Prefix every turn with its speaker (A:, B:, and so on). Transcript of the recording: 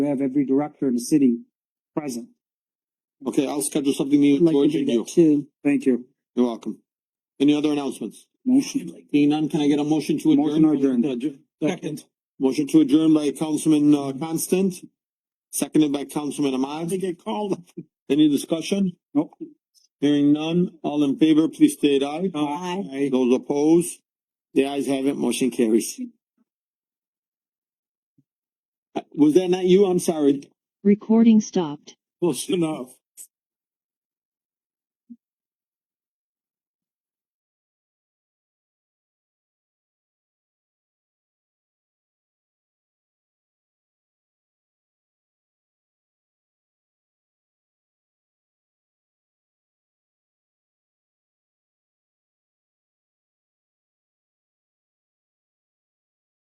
A: to have every director in the city present.
B: Okay, I'll schedule something new,
A: I'd like to
B: George,
A: do
B: and
A: that
B: you.
A: too. Thank you.
B: You're welcome. Any other announcements?
A: Motion.
B: Being none, can I get a motion to adjourn?
A: Motion adjourned.
B: Second. Motion to adjourn by Councilman, uh, Constant, seconded by Councilman Ahmad. They get called. Any discussion?
A: Nope.
B: Hearing none, all in favor, please state aye.
A: Uh,
B: Aye. Those opposed, the ayes have it, motion carries. Uh, Was that not you? I'm sorry.
C: Recording stopped.
B: Close enough.